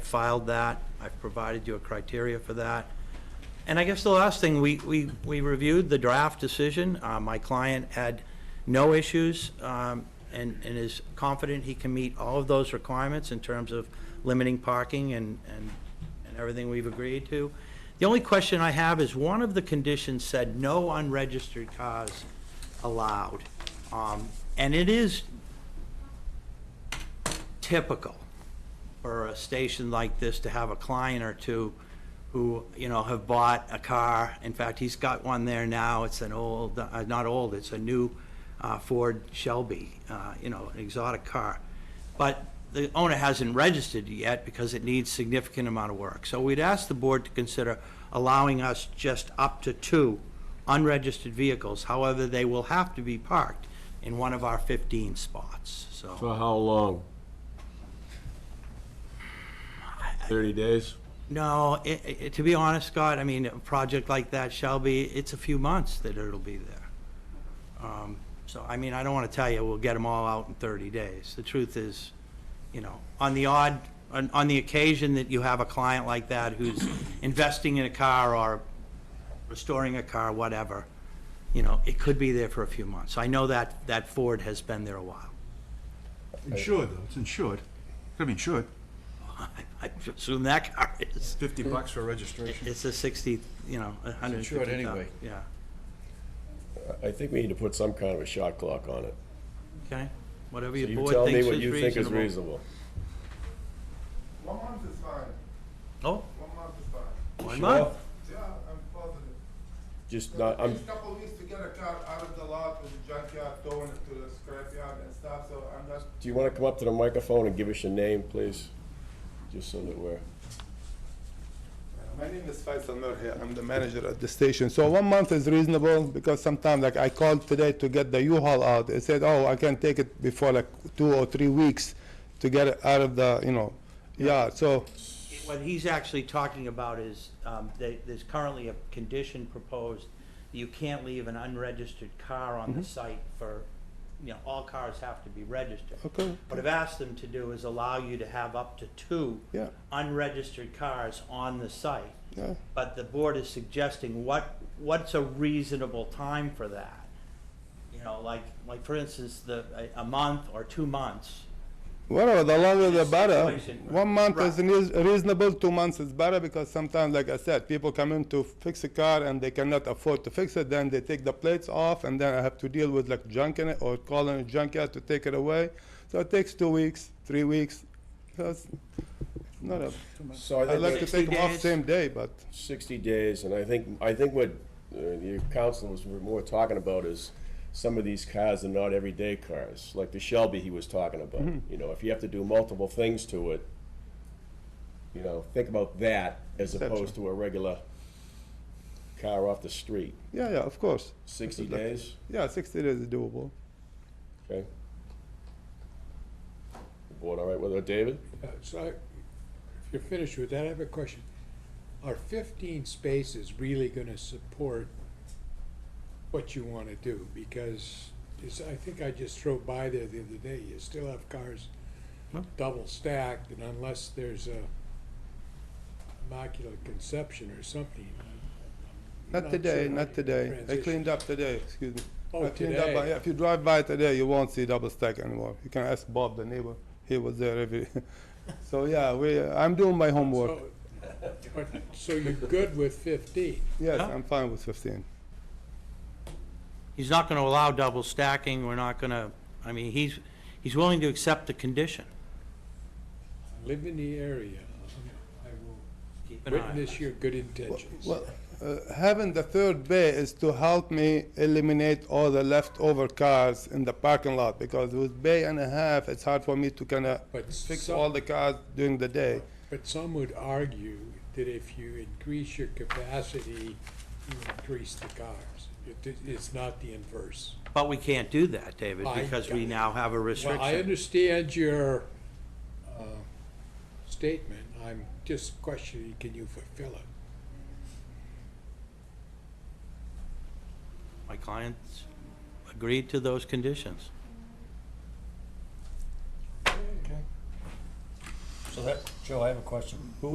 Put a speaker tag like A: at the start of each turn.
A: filed that. I've provided you a criteria for that. And I guess the last thing, we, we, we reviewed the draft decision. Uh, my client had no issues, um, and, and is confident he can meet all of those requirements in terms of limiting parking and, and, and everything we've agreed to. The only question I have is, one of the conditions said no unregistered cars allowed. Um, and it is typical for a station like this to have a client or two who, you know, have bought a car. In fact, he's got one there now. It's an old, uh, not old, it's a new uh, Ford Shelby, uh, you know, an exotic car. But the owner hasn't registered it yet because it needs significant amount of work. So we'd ask the board to consider allowing us just up to two unregistered vehicles. However, they will have to be parked in one of our 15 spots,
B: For how long? Thirty days?
A: No, i i to be honest, Scott, I mean, a project like that, Shelby, it's a few months that it'll be there. Um, So, I mean, I don't want to tell you, we'll get them all out in 30 days. The truth is, you know, on the odd, on, on the occasion that you have a client like that who's investing in a car or restoring a car, whatever, you know, it could be there for a few months. I know that, that Ford has been there a while.
C: Insured though, it's insured. Gotta be insured.
A: I assume that car is,
C: Fifty bucks for registration.
A: it's a 60, you know, a 150.
C: insured anyway.
A: Yeah,
D: I think we need to put some kind of a shot clock on it.
A: okay, whatever
D: So
A: your
D: you
A: board
D: tell me
A: thinks
D: what
A: is
D: you think is
A: reasonable.
D: reasonable.
E: One month is fine.
A: Oh,
E: One month is fine.
A: one
D: Sure.
A: month.
E: Yeah, I'm positive.
D: Just
E: So
D: not,
E: it
D: I'm,
E: takes a couple weeks to get a car out of the lot with the junkyard, throwing it to the scrapyard and stuff, so I'm not,
D: do you want to come up to the microphone and give us your name, please? Just so that we're,
E: My name is Faisal Nur here, I'm the manager at the station. So one month is reasonable, because sometimes, like, I called today to get the U-Haul out. It said, oh, I can take it before like two or three weeks to get it out of the, you know, yard, so.
A: What he's actually talking about is, um, they, there's currently a condition proposed, that you can't leave an unregistered car on
E: Mm-hmm.
A: the site for, you know, all cars have to be registered.
E: Okay.
A: What I've asked them to do is allow you to have up to two
E: Yeah.
A: unregistered cars on the site.
E: Yeah.
A: But the board is suggesting what, what's a reasonable time for that? You know, like, like for instance, the, a, a month or two months.
E: Whatever, the longer the
A: This
E: better.
A: situation, right.
E: One month is
A: Right.
E: reas- reasonable, two months is better because sometimes, like I said, people come in to fix a car and they cannot afford to fix it, then they take the plates off and then I have to deal with like junk in it or calling a junkyard to take it away. So it takes two weeks, three weeks. So it's not a,
D: so I
E: I'd
D: think
E: like to
D: it's
A: Sixty
E: take them off
A: days.
E: same day, but
D: sixty days, and I think, I think what uh, your councilors were more talking about is some of these cars are not everyday cars, like the Shelby he was talking about. You know, if you have to do multiple things to it, you know, think about that as opposed to a regular car off the street.
E: yeah, yeah, of course.
D: Sixty
E: This is like-
D: days,
E: Yeah, sixty days is doable.
D: okay? The Board all right with it, David?
F: Uh, So, if you're finished with that, I have a question. Are fifteen spaces really gonna support what you wanna do? Because it's, I think I just drove by there the other day, you still have cars double stacked, and unless there's a immaculate conception or something. I'm
E: Not today,
F: sure how
E: not
F: you
E: today. I
F: transition.
E: cleaned up today, excuse me.
F: Oh,
E: I cleaned up,
F: today.
E: yeah, If you drive by today, you won't see double stack anymore. You can ask Bob, the neighbor. He was there every, so yeah, we, I'm doing my homework.
F: So, but- so you're good with fifteen?
E: Yes,
A: Huh?
E: I'm fine with fifteen.
A: He's not gonna allow double stacking, we're not gonna, I mean, he's, he's willing to accept the condition.
F: Live in the area. I will
A: Keep an eye on it.
F: witness your good intentions.
E: Well, uh, having the third bay is to help me eliminate all the leftover cars in the parking lot because with bay and a half, it's hard for me to kind of
F: But
E: fix
F: some-
E: all the cars during the day.
F: But some would argue that if you increase your capacity, you increase the cars. It- It's not the inverse.
A: But we can't do that, David,
F: I
A: because we
F: got it.
A: now have a
F: Well, I
A: restriction.
F: understand your uh, statement. I'm just questioning, can you fulfill it?
A: My clients agreed to those conditions.
G: Joe, I have a question.